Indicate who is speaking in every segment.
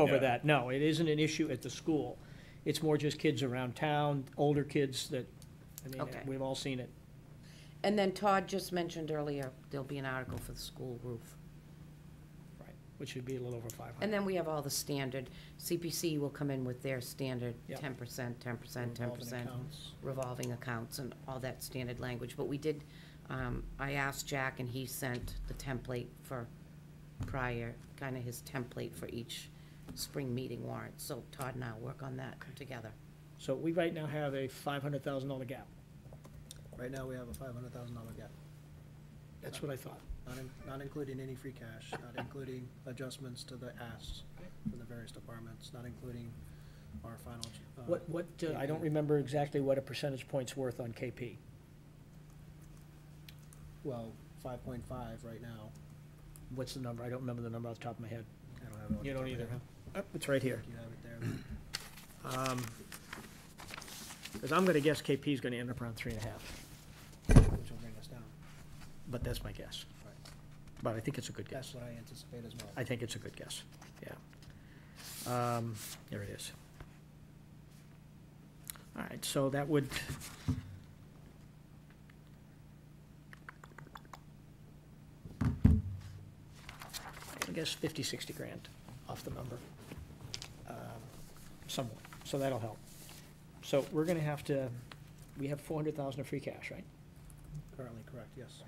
Speaker 1: over
Speaker 2: Yeah.
Speaker 1: that. No, it isn't an issue at the school. It's more just kids around town, older kids that, I mean,
Speaker 3: Okay.
Speaker 1: we've all seen it.
Speaker 3: And then Todd just mentioned earlier, there'll be an article for the school roof.
Speaker 1: Right, which would be a little over five
Speaker 3: And
Speaker 1: hundred.
Speaker 3: then we have all the standard, CPC will come in with their standard
Speaker 1: Yep.
Speaker 3: ten percent, ten percent, ten percent revolving accounts and all that standard language, but we did, um, I asked Jack and he sent the template for prior, kinda his template for each spring meeting warrant, so Todd and I'll work on that together.
Speaker 1: So we right now have a five hundred thousand dollar gap.
Speaker 4: Right now, we have a five hundred thousand dollar gap,
Speaker 1: That's what I thought.
Speaker 4: not in, not including any free cash, not including adjustments to the asks from the various departments, not including our final. uh,
Speaker 1: What, what, uh, I don't
Speaker 4: KP.
Speaker 1: remember exactly what a percentage point's worth on KP.
Speaker 4: Well, five point five right now.
Speaker 1: What's the number? I don't remember the number off the top of my head.
Speaker 4: I don't have it. on
Speaker 1: You
Speaker 4: the
Speaker 1: don't
Speaker 4: top of my
Speaker 1: either,
Speaker 4: head.
Speaker 1: huh? Uh, It's right here.
Speaker 4: You have it there.
Speaker 1: Because I'm going to guess KP is going to end up around three and a half,
Speaker 4: which will bring us down.
Speaker 1: but that's my guess.
Speaker 4: Right.
Speaker 1: But I think it's a good guess.
Speaker 4: That's what I anticipate as well.
Speaker 1: I think it's a good guess, yeah. Um, There it is. All right, so that would. I guess 50, 60 grand off the number, um, somewhat, so that'll help. So we're gonna have to, we have 400,000 of free cash, right?
Speaker 4: Currently correct, yes.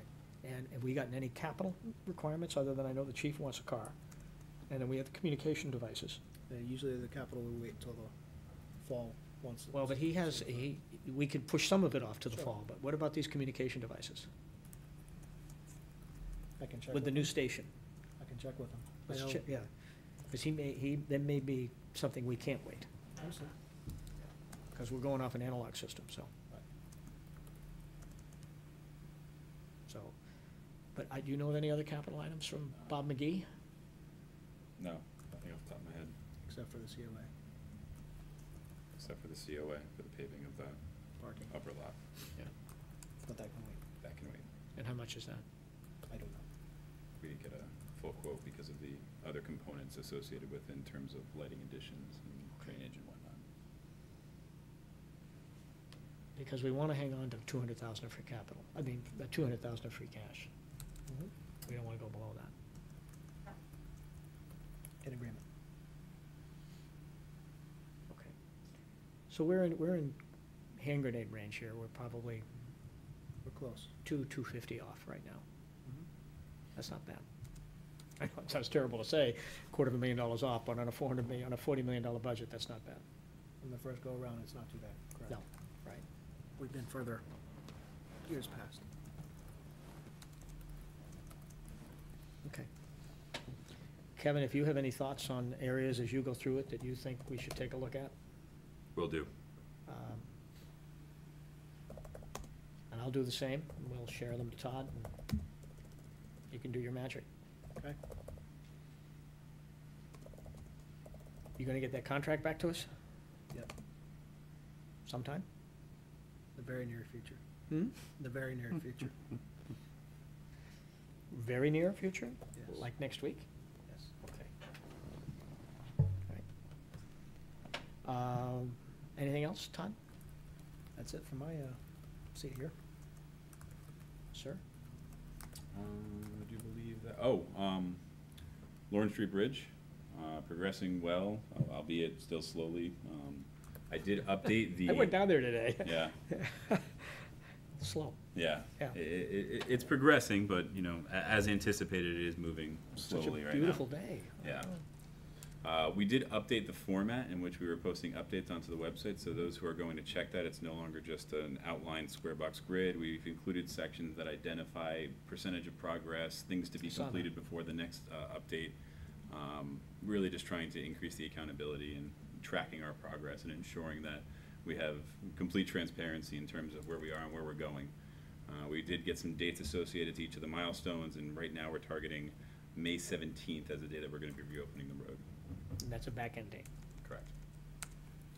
Speaker 1: And have we gotten any capital requirements, other than I know the chief wants a car? And then we have the communication devices.
Speaker 4: Uh, Usually the capital we wait till the fall, once.
Speaker 1: Well, but he has, he, we could push some of it off to the fall, but what about these communication devices?
Speaker 4: I can check,
Speaker 1: With the
Speaker 4: with-
Speaker 1: new station?
Speaker 4: I can check with him. I
Speaker 1: Let's
Speaker 4: know-
Speaker 1: check, yeah. Because he may, he, that may be something we can't wait,
Speaker 4: Understood.
Speaker 1: because we're going off an analog system, so.
Speaker 4: Right.
Speaker 1: So, but I, do you know of any other capital items from Bob McGee?
Speaker 2: No, nothing off the top of my head,
Speaker 4: Except for the COA
Speaker 2: except for the COA for the paving of the
Speaker 4: parking,
Speaker 2: upper lot.
Speaker 4: but that can wait.
Speaker 2: That can wait.
Speaker 1: And how much is that?
Speaker 4: I don't know.
Speaker 2: We didn't get a full quote because of the other components associated with in terms of lighting additions and drainage and whatnot.
Speaker 1: Because we want to hang on to two hundred thousand of free capital, I mean, two hundred thousand of free cash.
Speaker 4: Mhm.
Speaker 1: We don't want to go below that.
Speaker 4: In agreement.
Speaker 1: Okay. So we're in, we're in hand grenade range here, we're probably
Speaker 4: We're close.
Speaker 1: two, two fifty off right now.
Speaker 4: Mm-hmm.
Speaker 1: That's not bad. I know it sounds terrible to say, quarter of a million dollars off, but on a four hundred million, on a forty million dollar budget, that's not bad.
Speaker 4: From the first go-around, it's not too bad, correct?
Speaker 1: No, right.
Speaker 4: We've been further years past.
Speaker 1: Okay. Kevin, if you have any thoughts on areas as you go through it that you think we should take a look at?
Speaker 2: Will do.
Speaker 1: um, And I'll do the same, and we'll share them to Todd, and you can do your magic.
Speaker 4: Okay.
Speaker 1: You gonna get that contract back to us?
Speaker 4: Yep.
Speaker 1: Sometime?
Speaker 4: The very near future.
Speaker 1: Hmm?
Speaker 4: The very near future.
Speaker 1: Very near future,
Speaker 4: Yes.
Speaker 1: like next week?
Speaker 4: Yes.
Speaker 1: Okay. All right. Um, Anything else, Todd,
Speaker 4: That's it for my uh, seat here.
Speaker 1: sir?
Speaker 2: Um, do you believe that, oh, um, Lawrence Street Bridge, uh, progressing well, uh, albeit still slowly. Um, I did update the.
Speaker 1: I went down there today.
Speaker 2: Yeah,
Speaker 1: Slow.
Speaker 2: yeah.
Speaker 1: Yeah.
Speaker 2: I- I- I- it's progressing, but, you know, a- as anticipated, it is moving slowly right now.
Speaker 1: Such a beautiful day.
Speaker 2: Yeah. Uh, we did update the format in which we were posting updates onto the website, so those who are going to check that, it's no longer just an outlined square box grid. We've included sections that identify percentage of progress, things to be
Speaker 1: Saw that.
Speaker 2: completed before the next, uh, update. Um, really just trying to increase the accountability and tracking our progress and ensuring that we have complete transparency in terms of where we are and where we're going. Uh, we did get some dates associated to each of the milestones, and right now we're targeting May seventeenth as the day that we're gonna be reopening the road.
Speaker 1: And that's a back end date,
Speaker 2: Correct.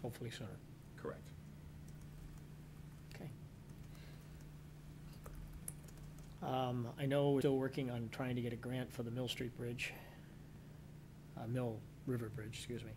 Speaker 1: hopefully sooner.
Speaker 2: Correct.
Speaker 1: Okay. Um, I know we're still working on trying to get a grant for the Mill Street Bridge, uh, Mill River Bridge, excuse me.